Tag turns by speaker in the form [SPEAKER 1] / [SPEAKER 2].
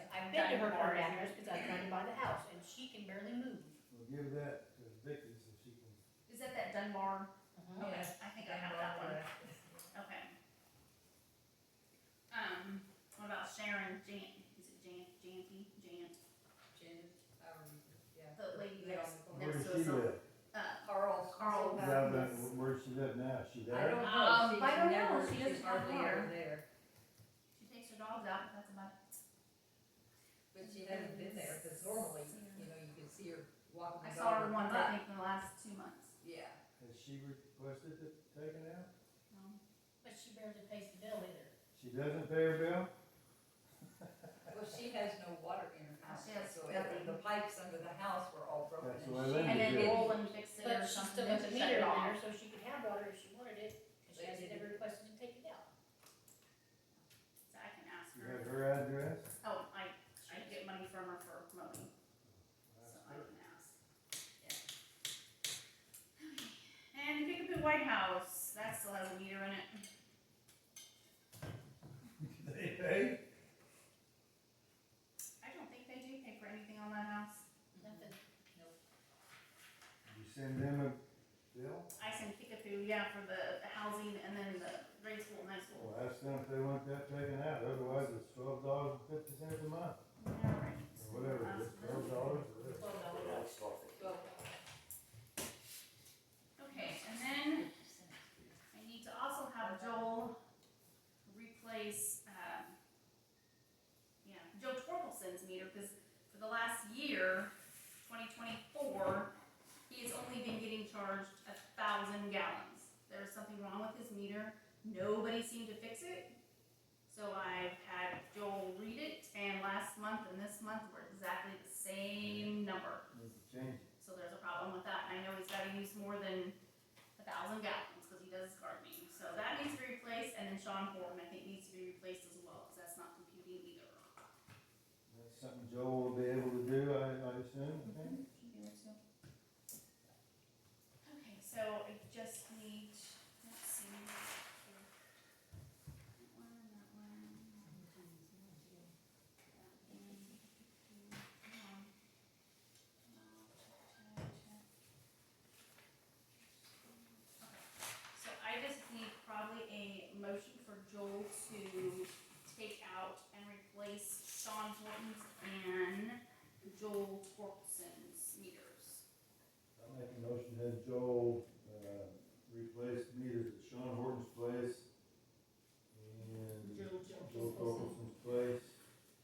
[SPEAKER 1] to her
[SPEAKER 2] Or
[SPEAKER 1] for
[SPEAKER 2] is
[SPEAKER 1] address because I tried to buy the house and she can barely move.
[SPEAKER 3] We'll give that to Vicky's if she can.
[SPEAKER 2] Is that that Dunbar?
[SPEAKER 1] Mhm.
[SPEAKER 2] Okay,
[SPEAKER 4] Yes,
[SPEAKER 2] I think I have that one.
[SPEAKER 4] Okay. Um, what about Sharon Jan, is it Jan, Jampy, Jant,
[SPEAKER 5] Jen, um, yeah.
[SPEAKER 4] the lady
[SPEAKER 5] Yeah.
[SPEAKER 4] that's
[SPEAKER 3] Where
[SPEAKER 4] next
[SPEAKER 3] does
[SPEAKER 4] to us
[SPEAKER 3] she
[SPEAKER 4] on,
[SPEAKER 3] live?
[SPEAKER 4] uh,
[SPEAKER 5] Carl.
[SPEAKER 4] Carl.
[SPEAKER 3] Yeah, but where does she live now? She
[SPEAKER 5] I
[SPEAKER 3] there?
[SPEAKER 2] Um,
[SPEAKER 5] don't know,
[SPEAKER 2] I
[SPEAKER 5] she's
[SPEAKER 2] don't
[SPEAKER 5] never,
[SPEAKER 2] know. She
[SPEAKER 5] she's
[SPEAKER 2] doesn't
[SPEAKER 5] hardly
[SPEAKER 2] have
[SPEAKER 5] ever
[SPEAKER 2] her.
[SPEAKER 5] there,
[SPEAKER 4] she takes her dogs out, but that's about it.
[SPEAKER 5] but she hasn't been there, cause normally, you know, you can see her walking
[SPEAKER 4] I
[SPEAKER 5] the dog.
[SPEAKER 4] saw her once, I think, in the last two months.
[SPEAKER 5] Yeah,
[SPEAKER 3] Has she requested it taken out?
[SPEAKER 4] Um,
[SPEAKER 1] But she barely pays the bill either.
[SPEAKER 3] She doesn't pay her bill?
[SPEAKER 5] well, she has no water in her house,
[SPEAKER 4] She has
[SPEAKER 5] so the- the pipes under the house were all broken.
[SPEAKER 3] That's
[SPEAKER 5] and
[SPEAKER 3] why
[SPEAKER 5] she-
[SPEAKER 3] Linda
[SPEAKER 4] And then
[SPEAKER 3] did.
[SPEAKER 4] Roland fixed it or
[SPEAKER 1] But she
[SPEAKER 4] something,
[SPEAKER 1] still
[SPEAKER 4] then
[SPEAKER 1] has a
[SPEAKER 4] she shut
[SPEAKER 1] meter
[SPEAKER 4] it
[SPEAKER 1] in
[SPEAKER 4] off.
[SPEAKER 1] there, so she could have water if she wanted it, because she
[SPEAKER 5] They
[SPEAKER 1] hasn't
[SPEAKER 5] didn't.
[SPEAKER 1] ever requested to take it out.
[SPEAKER 4] So I can ask
[SPEAKER 3] You have
[SPEAKER 4] her,
[SPEAKER 3] her address?
[SPEAKER 4] oh, I, I get money from her for mowing, so I can ask. And the Kickapoo White House, that still has a meter in it.
[SPEAKER 3] They pay?
[SPEAKER 4] I don't think they do pay for anything on that house.
[SPEAKER 1] Nothing.
[SPEAKER 3] You send them a bill?
[SPEAKER 4] I send Kickapoo, yeah, for the housing and then the grade school, and high school.
[SPEAKER 3] Well, ask them if they want that taken out, otherwise it's twelve dollars and fifty cents a month,
[SPEAKER 4] Alright.
[SPEAKER 3] or whatever, it is, twelve dollars or whatever.
[SPEAKER 5] Well,
[SPEAKER 4] Okay, and then I need to also have Joel replace, um, yeah, Joe Torkelson's meter, because for the last year, twenty twenty-four, he has only been getting charged a thousand gallons. There is something wrong with his meter, nobody seemed to fix it. So I've had Joel read it, and last month and this month were exactly the same number.
[SPEAKER 3] Need to change it.
[SPEAKER 4] So there's a problem with that, and I know he's gotta use more than a thousand gallons, cause he does gardening, so that needs to be replaced, and then Sean Horn, I think, needs to be replaced as well, cause that's not computing either.
[SPEAKER 3] That's something Joel will be able to do, I, I assume, I think.
[SPEAKER 4] Okay, so I just need, let's see. That one, that one. That one. Come on. Come on, check, check, check. So I just need probably a motion for Joel to take out and replace Sean Horton's and Joel Torkelson's meters.
[SPEAKER 3] I make a motion that Joel, uh, replace meters at Sean Horton's place